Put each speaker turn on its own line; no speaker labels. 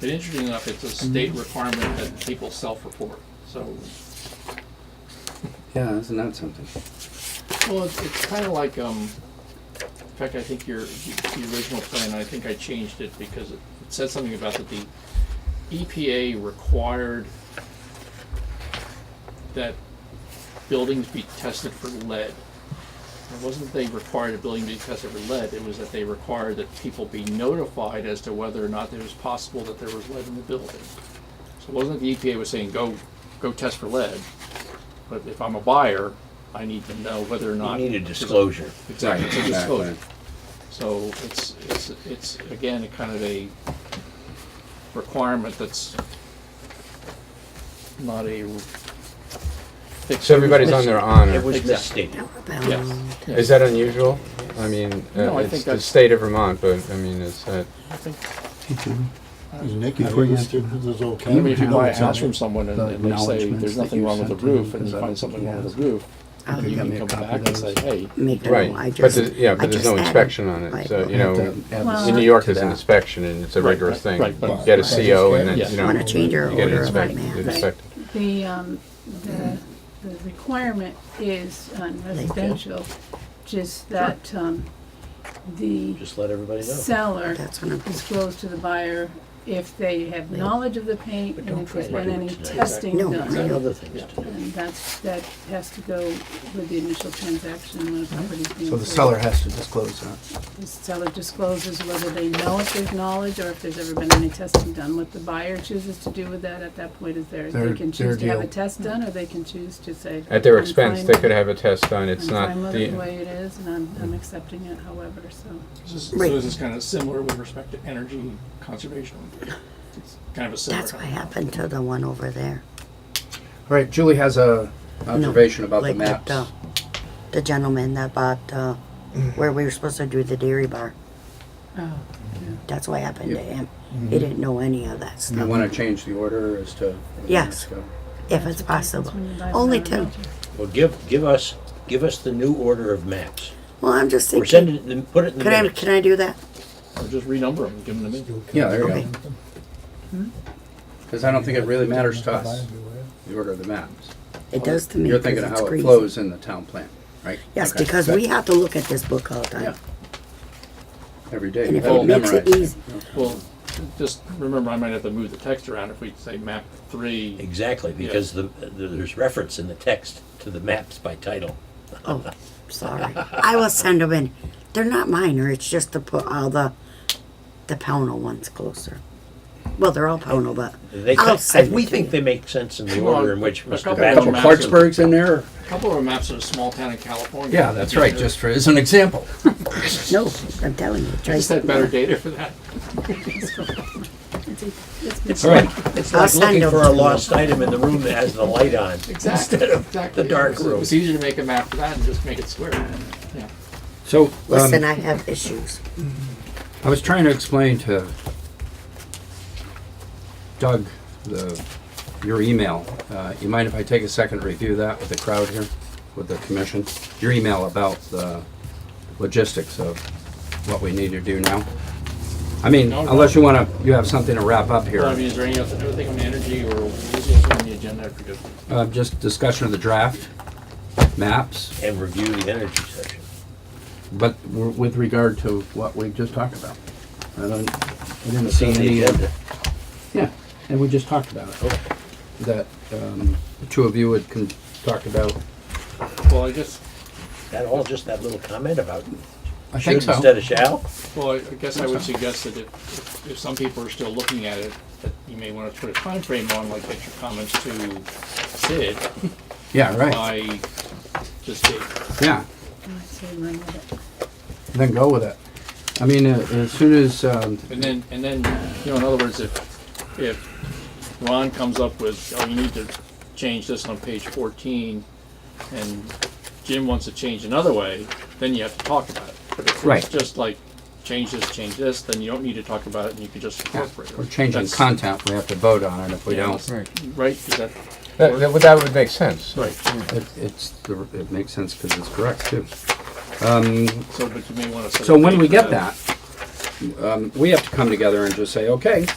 But interesting enough, it's a state requirement that people self-report, so,
Yeah, that's not something.
well, it's, it's kinda like, um, in fact, I think your, the original plan, I think I changed it because it said something about that the EPA required that buildings be tested for lead. It wasn't they required a building to be tested for lead, it was that they required that people be notified as to whether or not it was possible that there was lead in the building. So it wasn't that the EPA was saying, go, go test for lead, but if I'm a buyer, I need to know whether or
You
not.
need a disclosure.
Exactly, it's a
Exactly.
disclosure. So it's, it's, it's, again, a kind of a requirement that's not a. fixed-
So everybody's on their
It
honor.
was
Exactly.
misstated.
Yes, yes.
Is that unusual? I mean,
No,
uh,
I
it's
think
the
that's-
state of Vermont, but I mean, it's uh, that.
I think
Nick,
Before you-
there's all
I mean, if
kinds
you
of-
No,
buy a
it's
house
not.
from someone and
Mm-hmm. The
and they say
acknowledgements
there's
that
nothing
you
wrong with the
sent to him,
roof, and
because
you
I
find
don't
something
think he
wrong with
has.
the roof,
I'll
then you
got
can
me a
come
copy
back
of
and say,
those.
hey,
make a
Right,
note. I
but
just.
the- yeah,
I
but there's no
just add
inspection
it.
on it,
Right.
so, you
Have to
know,
add the
in New
zip
York,
to
there's an
that.
inspection, and it's a
Right,
rigorous
right,
thing.
right, but-
You Get a CO, and
Yeah.
then, you know,
Wanna change your
you get it
order of
inspected,
right now.
it's inspected.
The, um, the, the requirement is on residential, just that, um, the
Just let everybody know.
seller
That's what I'm-
disclose to the buyer if they have knowledge of the paint
But
and
don't
if there's
try to
been
do it
any
today.
testing
No,
done.
I
There's
know.
other things to do.
And that's, that has to go with the initial transaction when a property's being.
So the
sold.
seller has to disclose that.
The seller discloses whether they know if there's knowledge or if there's ever been any testing done. What the buyer chooses to do with that at that point is theirs. They
Their-
can choose
their
to have a
deal.
test done or they can choose to say.
At their
"I'm
expense,
fine
they
with-
could have a test done, it's
I'm
not
fine with it the
the,
way it is and I'm, I'm accepting it however, so.
this is- so
Right.
this is kind of similar with respect to energy conservation. It's Kind of a similar.
That's what
kind of-
happened to the one over there.
All right, Julie has a
No,
observation about the
like that,
maps.
uh, The gentleman that bought, uh,
Mm-hmm.
where we were supposed to do the dairy bar.
Oh,
That's what happened to
Yep.
him. He didn't know any of that
Mm-hmm. You
stuff,
want to change the order as to.
Yes. if it's possible. Only two.
Well, give, give us, give us the new order of maps.
Well, I'm just
Or
thinking,
send it, then put it in the
could I,
minutes.
can I do that?
Or just renumber them, give them to me.
Yeah, there you
Okay.
go. Because I don't think it really matters to us, the order of the maps.
It does to me,
You're
'cause
thinking of
it's
how it
crazy.
flows in the town plan, right?
Yes,
Okay,
because we
good.
have to look at this book all the time.
Every day.
And
you
if
gotta
it makes it
memorize
easy,
Well, just remember, I might have to move the text around if we say map three.
Exactly, because the, there's reference in the text to the maps by title.
Oh, sorry. I will send them in. They're not minor. It's just to put all the the Pownell ones closer. Well, they're all Pownell, but
They,
I'll
cut-
send
we
it to
think
you.
they make sense in the
Well,
order in which
a
Mr.
couple
A couple
of
Badger.
Clarksburgs in there?
A couple of maps of a small town in California.
Yeah, that's right, just for, as an example.
no, I'm telling you.
I
try
just had
something
better
else.
data for that.
All right, it's
I'll
like
send
looking
them
for a
to you.
lost item in the room that has the light on.
Exactly, exactly.
the dark
It was- It
room.
was easier to make a map for that and just make it square. Yeah.
So, um,
Listen, I have issues.
I was trying to explain to Doug, the, your email. Uh, You mind if I take a second to review that with the crowd here, with the commission? Your email about the logistics of what we need to do now? I mean,
No, no.
unless you want to, you have something to wrap up
Well, I
here.
mean, is there any other other thing on energy or what was on the agenda? I forget.
Uh, Just discussion of the draft, maps,
And review the energy section.
but w- with regard to what we just talked about. I don't, I didn't
It's
see
on the
any. uh,
agenda.
Yeah, and we just talked about it, Oh. that um, the two of you had con- talked about.
Well, I guess,
That all just that little comment about
I
should instead of shall?
well, I I guess I would suggest that if, if some people are still looking at it, that you may want to put a time frame on, like get your comments to Sid
Yeah, right,
by this date.
yeah,
I'd say run with it.
then go with it. I mean, uh, as soon as, um,
And then, and then, you know, in other words, if, if Ron comes up with, oh, you need to change this on page fourteen, and Jim wants to change another way, then you have to talk about it. But if
Right.
it's just like, change this, change this, then you don't need to talk about it, and you can just incorporate it.
we're changing
That's-
content, we have to vote on it if we
Yeah.
don't.
Right. Right, is that,
That, that would- that would make sense.
right,
It- It's, the- it makes sense because it's correct too.
so, but you may wanna. set a
So when
date
we
for
get that, um, we have to come together and just say, okay,